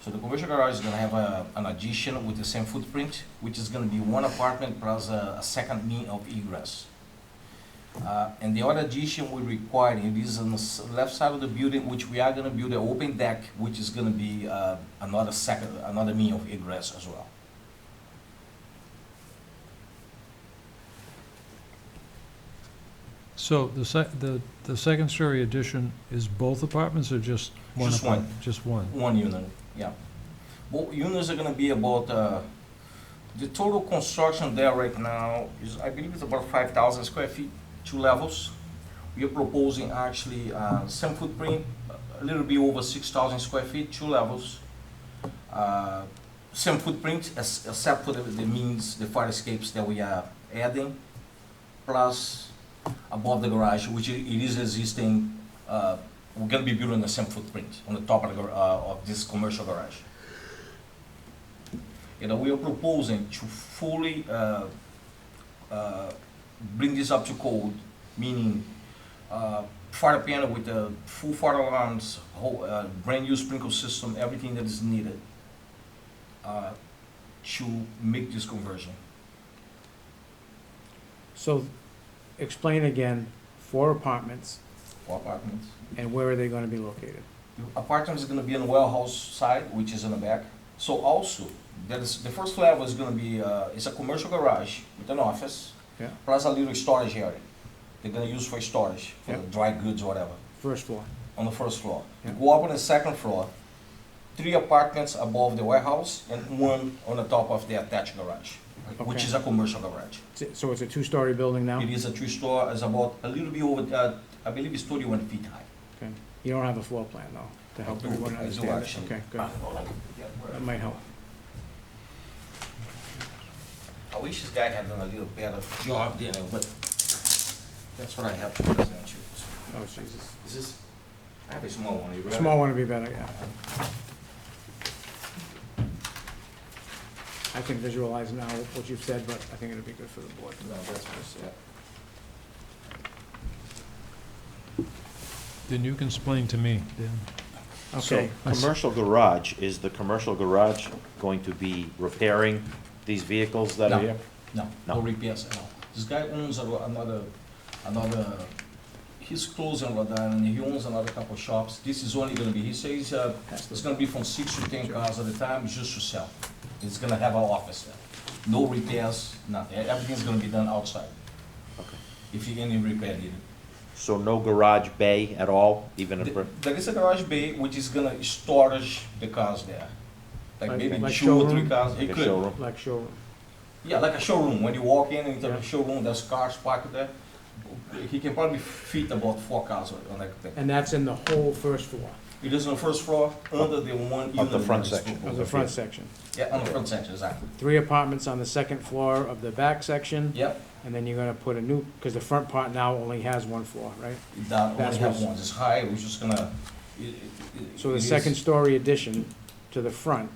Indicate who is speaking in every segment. Speaker 1: So the commercial garage is gonna have a, an addition with the same footprint, which is gonna be one apartment plus a, a second mean of egress. Uh, and the other addition we require, it is on the s- left side of the building, which we are gonna build an open deck, which is gonna be, uh, another second, another mean of egress as well.
Speaker 2: So the sec, the, the second story addition is both apartments or just one
Speaker 1: Just one.
Speaker 2: apartment? Just one.
Speaker 1: One unit, yeah. Both units are gonna be about, uh, the total construction there right now is, I believe it's about five thousand square feet, two levels. We are proposing actually, uh, same footprint, a little bit over six thousand square feet, two levels. Uh, Same footprint, ex- except for the, the means, the fire escapes that we are adding, plus above the garage, which i- it is existing, uh, we're gonna be building the same footprint on the top of the, gar- uh, of this commercial garage. You know, we are proposing to fully, uh, uh, bring this up to code, meaning, uh, fire panel with the full fire alarms, whole, uh, brand new sprinkler system, everything that is needed, uh, to make this conversion.
Speaker 3: So, explain again, four apartments,
Speaker 1: for apartments.
Speaker 3: and where are they gonna be located?
Speaker 1: The Apartment is gonna be on the warehouse side, which is in the back. So also, that is, the first level is gonna be, uh, it's a commercial garage with an office.
Speaker 3: Yeah.
Speaker 1: Plus a little storage area. They're gonna use for storage, for
Speaker 3: Yeah.
Speaker 1: the dry goods or whatever,
Speaker 3: First floor,
Speaker 1: on the first floor. You
Speaker 3: Yeah.
Speaker 1: Go up on the second floor, three apartments above the warehouse and one on the top of the attached garage, which
Speaker 3: Okay.
Speaker 1: is a commercial garage.
Speaker 3: S- so it's a two-story building now?
Speaker 1: It is a two-store, it's about a little bit over, uh, I believe it's thirty-one feet high.
Speaker 3: Okay. You don't have a floor plan though, to help
Speaker 1: I do,
Speaker 3: everyone
Speaker 1: I do
Speaker 3: understand it?
Speaker 1: actually.
Speaker 3: Okay, good, that might help.
Speaker 1: I wish this guy had done a little better job there, but that's what I have to present you.
Speaker 3: Oh, Jesus.
Speaker 1: Is this, I have a small one, you ready?
Speaker 3: Small one would be better, yeah. I can visualize now what you've said, but I think it'd be good for the board.
Speaker 1: No, that's what's, yeah.
Speaker 2: Then you can explain to me, Dan.
Speaker 3: Okay,
Speaker 2: I
Speaker 4: So,
Speaker 2: see.
Speaker 4: commercial garage, is the commercial garage going to be repairing these vehicles that
Speaker 1: No.
Speaker 4: are here?
Speaker 1: No,
Speaker 4: No.
Speaker 1: no repairs at all. This guy owns a- another, another, he's closing Rodan and he owns another couple shops. This is only gonna be, he says, uh, it's gonna be from six to ten cars at a time, just to sell. It's gonna have an office there. No repairs, nothing. Everything's gonna be done outside,
Speaker 4: Okay.
Speaker 1: if you any repair needed.
Speaker 4: So no garage bay at all, even a,
Speaker 1: Th-
Speaker 4: brick-
Speaker 1: There is a garage bay which is gonna storage the cars there. Like
Speaker 3: Like-
Speaker 1: maybe
Speaker 3: like
Speaker 1: two or three
Speaker 3: showroom?
Speaker 1: cars.
Speaker 4: like
Speaker 1: It
Speaker 4: a
Speaker 1: could.
Speaker 4: showroom?
Speaker 3: like showroom,
Speaker 1: Yeah, like a showroom. When you walk in into
Speaker 3: Yeah.
Speaker 1: the showroom, there's cars parked there. He can probably fit about four cars on- on that thing.
Speaker 3: and that's in the whole first floor
Speaker 1: It is on the first floor, under the one unit.
Speaker 4: Of the front
Speaker 1: that is
Speaker 4: section.
Speaker 3: of
Speaker 1: proposed.
Speaker 3: the front section.
Speaker 1: Yeah, on the front section, exactly.
Speaker 3: Three apartments on the second floor of the back section,
Speaker 1: Yep,
Speaker 3: and then you're gonna put a new, because the front part now only has one floor, right?
Speaker 1: that
Speaker 3: That's
Speaker 1: only have
Speaker 3: what's-
Speaker 1: one. It's high, we're just gonna. it- it- it-
Speaker 3: So
Speaker 1: it
Speaker 3: the
Speaker 1: is-
Speaker 3: second story addition to the front,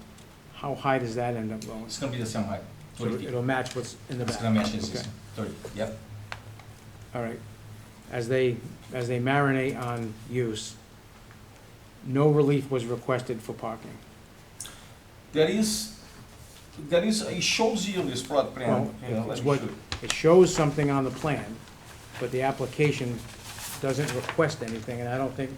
Speaker 3: how high does that end up going?
Speaker 1: It's gonna be the same height,
Speaker 3: So
Speaker 1: thirty feet.
Speaker 3: it'll match what's in the
Speaker 1: It's
Speaker 3: back?
Speaker 1: gonna match this,
Speaker 3: Okay.
Speaker 1: thirty, yep.
Speaker 3: All right. As they, as they marinate on use, no relief was requested for parking.
Speaker 1: There is, there is, it shows you this plot plan.
Speaker 3: Well,
Speaker 1: you know,
Speaker 3: it's
Speaker 1: let me
Speaker 3: what-
Speaker 1: show you.
Speaker 3: It shows something on the plan, but the application doesn't request anything, and I don't think,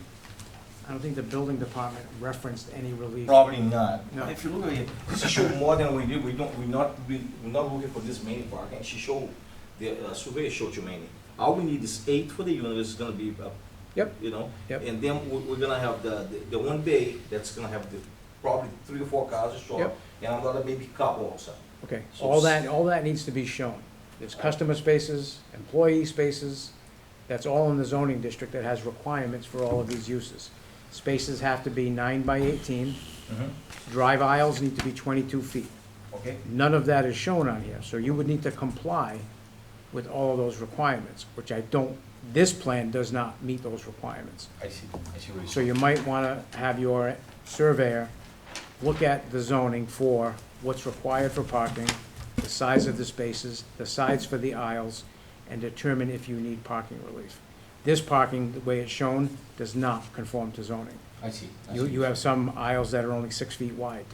Speaker 3: I don't think the building department referenced any relief.
Speaker 1: Probably not.
Speaker 3: No.
Speaker 1: If you look at it, she showed more than we did, we don't, we're not, we- we're not looking for this many parking, she showed, the uh, survey showed you many. All we need is eight for the unit, it's gonna be, uh,
Speaker 3: Yep.
Speaker 1: you know?
Speaker 3: Yep.
Speaker 1: And then we- we're gonna have the, the- the one bay, that's gonna have the, probably three or four cars or so,
Speaker 3: Yep.
Speaker 1: and another maybe couple also.
Speaker 3: Okay,
Speaker 1: So
Speaker 3: all
Speaker 1: it's-
Speaker 3: that, all that needs to be shown. There's customer spaces, employee spaces, that's all in the zoning district that has requirements for all of these uses. Spaces have to be nine by eighteen, drive aisles need to be twenty-two feet.
Speaker 1: Okay?
Speaker 3: None of that is shown on here, so you would need to comply with all of those requirements, which I don't, this plan does not meet those requirements.
Speaker 1: I see, I see what you're
Speaker 3: So you might wanna have your surveyor look at the zoning for what's required for parking, the size of the spaces, the size for the aisles, and determine if you need parking relief. This parking, the way it's shown, does not conform to zoning.
Speaker 1: I see. I
Speaker 3: You,
Speaker 1: see.
Speaker 3: you have some aisles that are only six feet wide.